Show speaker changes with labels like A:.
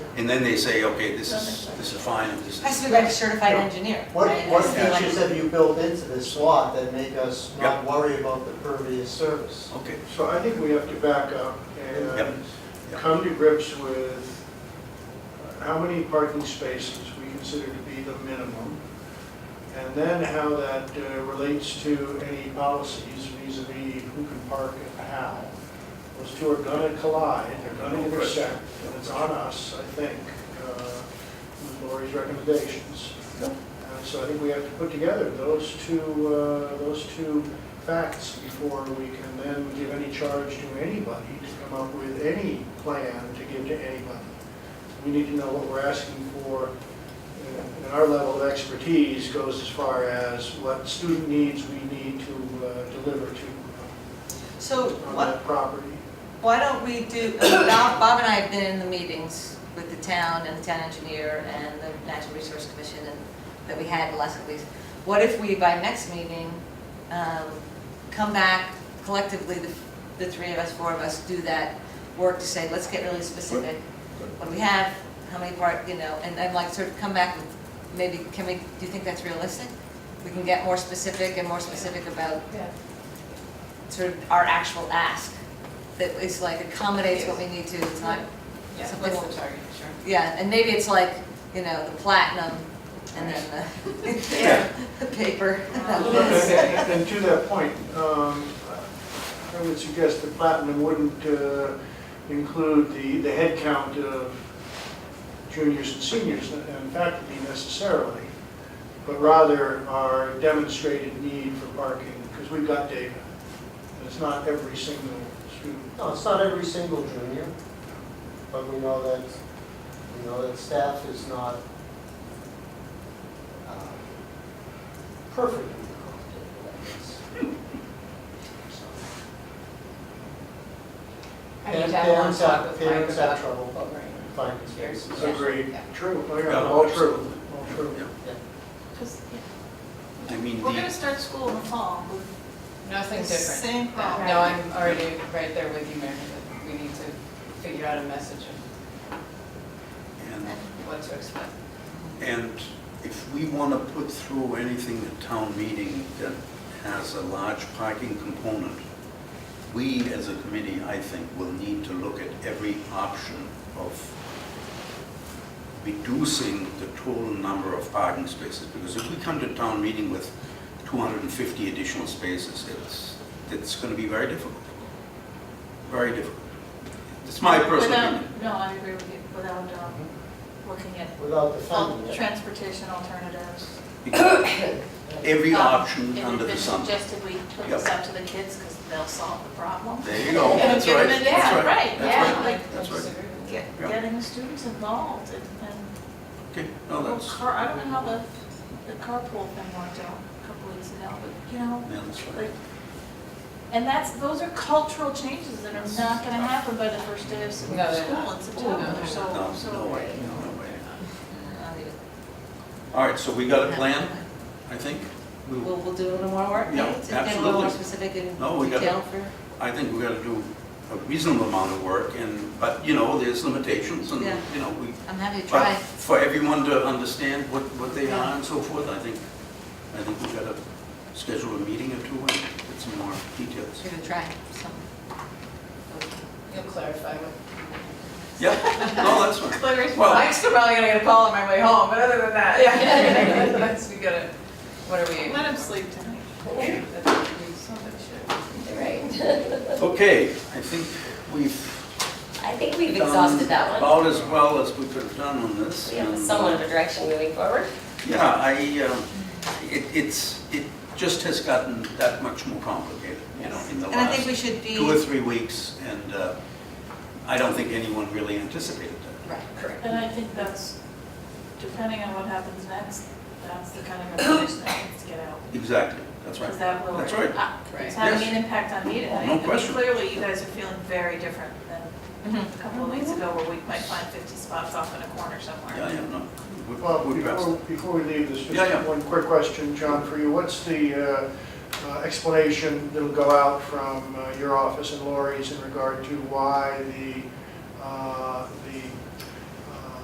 A: and then they say, okay, this is, this is fine, and this
B: Has to
A: is,
B: be like a certified engineer,
C: What,
B: right?
C: what
B: Has to be like-
C: features have you built into this lot that make us not
A: Yeah.
C: worry about the pervious surface?
A: okay.
D: So I think we have to back up
A: Yep.
D: and
A: Yep.
D: come to grips with how many parking spaces we consider to be the minimum, and then how that uh, relates to any policies vis-à-vis who can park and how. Those two are gonna collide, they're gonna intersect, and it's on us, I think, uh, with Lori's recommendations. Uh, So I think we have to put together those two, uh, those two facts before we can then give any charge to anybody to come up with any plan to give to anybody. We need to know what we're asking for, and and our level of expertise goes as far as what student needs we need to uh, deliver to
B: So
D: uh, on
B: what,
D: that property.
B: why don't we do, Bob Bob and I have been in the meetings with the town and the town engineer and the Natural Resource Commission and that we had the last couple weeks. What if we, by next meeting, um, come back collectively, the, the three of us, four of us, do that work to say, let's get really specific. What do we have, how many part, you know, and then like sort of come back with, maybe, can we, do you think that's realistic? We can get more specific and more specific about
E: Yeah.
B: sort of our actual ask, that is like accommodates what we need to, it's not,
E: Yeah,
B: Something
E: that's
B: like-
E: the target, sure.
B: yeah, and maybe it's like, you know, the platinum and then the paper.
D: And and to that point, um, I would suggest that Platinum wouldn't uh, include the, the head count of juniors and seniors and faculty necessarily, but rather our demonstrated need for parking, because we've got data. And It's not every single student.
C: No, it's not every single junior, but we know that, we know that staff is not uh, perfectly comfortable with
E: I need
C: And
E: to have a long
C: parents
E: talk
C: have-
E: with Mike
C: parents have
E: about
C: trouble.
E: lowering
C: this, finding spaces.
E: yours.
D: Agreed.
E: Yeah.
D: True. Oh,
A: Yeah,
D: yeah, All true.
A: absolutely.
D: All true.
A: Yeah.
F: Because
A: I mean,
F: we're gonna
A: the,
F: start school in the fall with
E: Nothing different.
F: the same problem.
E: No, I'm already right there with you, Mary, that we need to figure out a message of
A: and,
E: what to expect.
A: and if we want to put through anything at town meeting that has a large parking component, we as a committee, I think, will need to look at every option of reducing the total number of parking spaces. Because if we come to town meeting with 250 additional spaces, it's, it's going to be very difficult. Very difficult. It's my personal opinion.
F: Without, no, I agree with you, without, um, looking at
C: Without
F: al-
C: defending it.
F: transportation alternatives.
A: Because Every
F: Um,
A: option under the sun.
F: And it's been suggested we put this
A: Yep.
F: out to the kids, because they'll solve the problem.
A: There you go, that's
F: Give
A: right.
F: them a-
A: That's
F: Yeah,
A: right.
F: right,
A: That's
F: yeah,
A: right.
F: like,
A: That's right.
F: get,
A: Yeah.
F: getting the students involved and, and
A: Okay, no,
F: Well,
A: Oh, that's,
F: car, I don't know how the, the carpool thing worked out a couple weeks ago, but, you know,
A: yeah, that's right.
F: like, and that's, those are cultural changes that are not gonna happen by the first day of school
E: No, they're not.
F: in September, so,
A: No,
F: oh, so.
A: no way, no way. All right, so we got a plan, I think? We-
B: We'll, we'll do a little more work,
A: Yeah,
B: maybe, to get a little more
A: absolutely.
B: specific and
A: No, we got it.
B: detail for.
A: I think we got to do a reasonable amount of work and, but, you know, there's limitations and,
B: Yeah.
A: you know, we,
B: I'm happy to
A: but
B: try.
A: for everyone to understand what, what they
B: Yeah.
A: are and so forth, I think, I think we got to schedule a meeting or two and get some more details.
B: We're gonna try something.
E: You'll clarify what.
A: Yeah, no, that's fine.
E: Clarify.
A: Well-
E: Mike's probably gonna get a call on my way home, but other than that, yeah. Once we get it, what are we?
F: Let them sleep tonight.
E: Somebody should. Right.
A: Okay, I think we've
G: I think we've
A: done
G: exhausted that one.
A: About as well as we could have done on this.
G: We have
A: and, uh,
G: somewhat of a direction moving forward.
A: Yeah, I, um, it, it's, it just has gotten that much more complicated, you know, in the
B: And I think we
A: last
B: should be.
A: two or three weeks, and uh, I don't think anyone really anticipated that.
B: Right, correct.
F: And I think that's, depending on what happens next, that's the kind of information that needs to get out.
A: Exactly, that's
F: Because
A: right.
F: that will.
A: That's right.
F: uh, It's
E: Right.
F: having an impact on me tonight.
A: No question.
F: I mean, clearly, you guys are feeling very different than
B: Mhm.
F: a couple of weeks ago, where we might find 50 spots off in a corner
A: Yeah,
F: somewhere.
A: yeah, no. we-
D: Well,
A: we addressed
D: before,
A: it.
D: before we leave this,
A: Yeah, yeah.
D: just one quick question, John, for you. What's the uh, uh, explanation that'll go out from uh, your office and Lori's in regard to why the, uh, the